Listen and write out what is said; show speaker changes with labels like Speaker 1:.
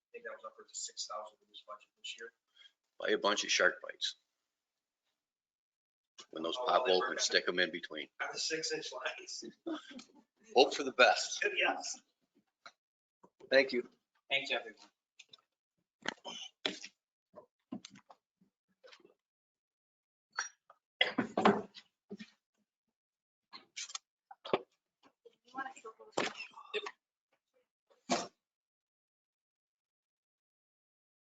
Speaker 1: think that was upwards of six thousand in this budget this year.
Speaker 2: Buy a bunch of shark bites. When those
Speaker 1: Oh,
Speaker 2: pop
Speaker 1: they
Speaker 2: open,
Speaker 1: were-
Speaker 2: stick them in between.
Speaker 1: On the six inch lines.
Speaker 2: Hope for the best.
Speaker 1: Yes.
Speaker 2: Thank you.
Speaker 1: Thanks, everyone.